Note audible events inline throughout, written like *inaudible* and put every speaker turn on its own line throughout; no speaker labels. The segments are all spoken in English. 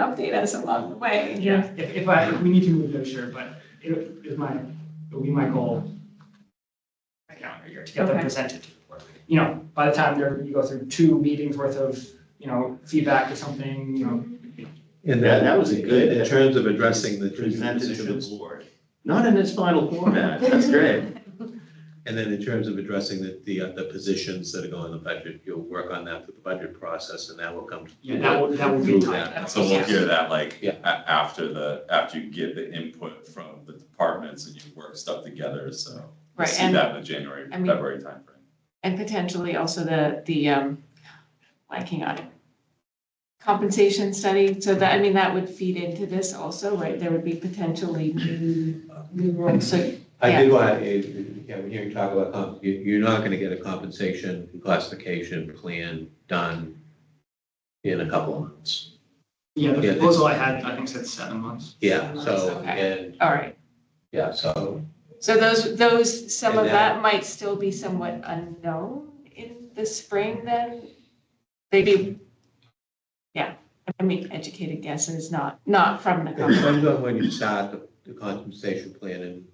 update us along the way.
Yeah, if, if I, if we need to move those, sure, but it is my, it would be my goal. My calendar year to get them
Okay.
presented to the board. You know, by the time there, you go through two meetings worth of, you know, feedback or something, you know.
And then,
That, that was a good.
in terms of addressing the two
Presented to the
positions,
board, not in its final format, that's great.
and then in terms of addressing the, the, uh, the positions that are going in the budget, you'll work on that through the budget process, and that will come.
Yeah, that will, that will be
Move
time.
that.
So we'll hear that like
Yeah.
a- after the, after you get the input from the departments and you work stuff together, so. we'll
Right,
See
and-
that in the January,
and we-
February timeframe.
And potentially also the, the, um, blanking on it. Compensation study, so that, I mean, that would feed into this also, right? There would be potentially new, new roles, so,
I did want, to yeah, when you talk about, comp- you, you're not gonna get a compensation classification plan done in a couple of months.
Yeah, the
Yeah.
proposal I had, I think said seven months.
Yeah, so,
Okay.
and,
all right.
yeah, so,
So those, those, some of
And that-
that might still be somewhat unknown in the spring then? Maybe, yeah, I mean, educated guesses, not, not from the
it
company.
depends on when you start the, the compensation plan and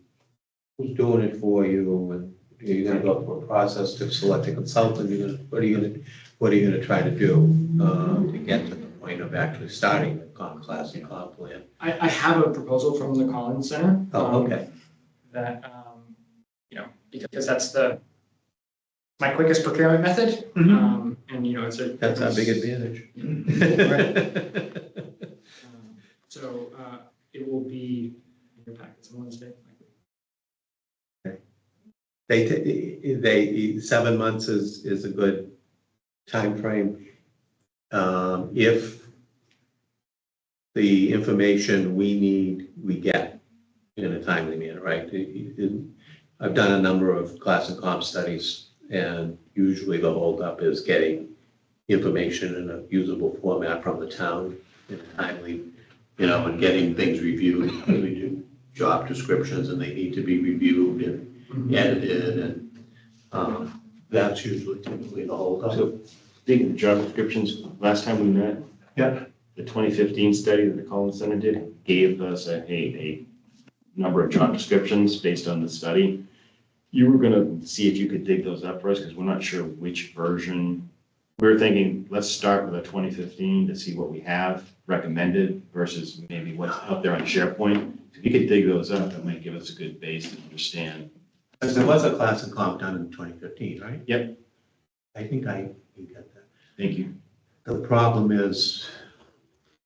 who's doing it for you, and are you gonna go through a process to select a consultant, you're gonna, what are you gonna, what are you gonna try to do, um, to get to the point of actually starting the comp class and comp plan?
I, I have a proposal from the Collins Center.
Oh,
um,
okay,
That, um, you know, because that's the, my quickest procurement method. Um, and you know, it's a.
Mm-hmm. that's our big
it's-
advantage. *laughs*
Um, So uh, it will be in your packets on Wednesday.
They, ta- they, seven months is, is a good timeframe. Um, if the information we need, we get in a timely manner, right? It- it- I've done a number of class and comp studies, and usually the holdup is getting information in a usable format from the town in a timely, you know, and getting things reviewed, because we do job descriptions and they need to be reviewed and edited and, um, that's usually typically the whole holdup.
So, Speaking of job descriptions, last time we met.
Yeah.
The twenty fifteen study that the Collins Center did gave us a, a, a number of job descriptions based on the study. You were gonna see if you could dig those up for us, because we're not sure which version. We were thinking, let's start with a twenty fifteen to see what we have recommended versus maybe what's out there on SharePoint. If you could dig those up, that might give us a good base to understand.
Because there was a class and comp done in 2015, right?
Yep.
I think I can get that.
Thank you.
The problem is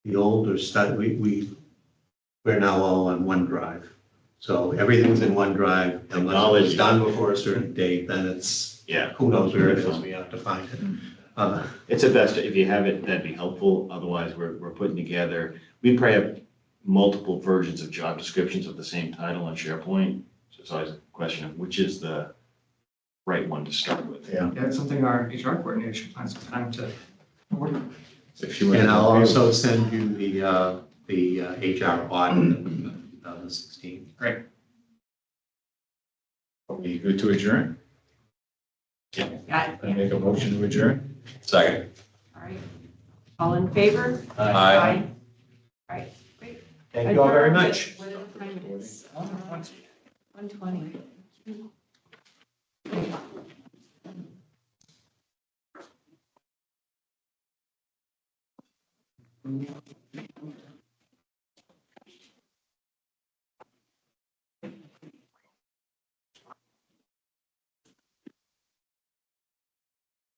the older study, we, we, we're now all on OneDrive. So everything's in OneDrive unless it was
Technology.
done before a certain date, then it's,
Yeah.
who knows where it is, we have to find it. Uh,
It's a best, if you have it, that'd be helpful, otherwise we're, we're putting together, we probably have multiple versions of job descriptions of the same title on SharePoint. So it's always a question of which is the right one to start with.
Yeah.
Yeah, it's something our HR coordinator should find some time to. work on.
If you were-
And I'll also send you the, uh, the uh, HR audit that we got in 2016.
Are you good to adjourn?
Yeah,
I make a motion to adjourn?
Second.
all right. All in favor?
Aye.
All right, great.
Thank you all very
Adjourned at
much.
whatever time it is. uh,
Once-
One twenty.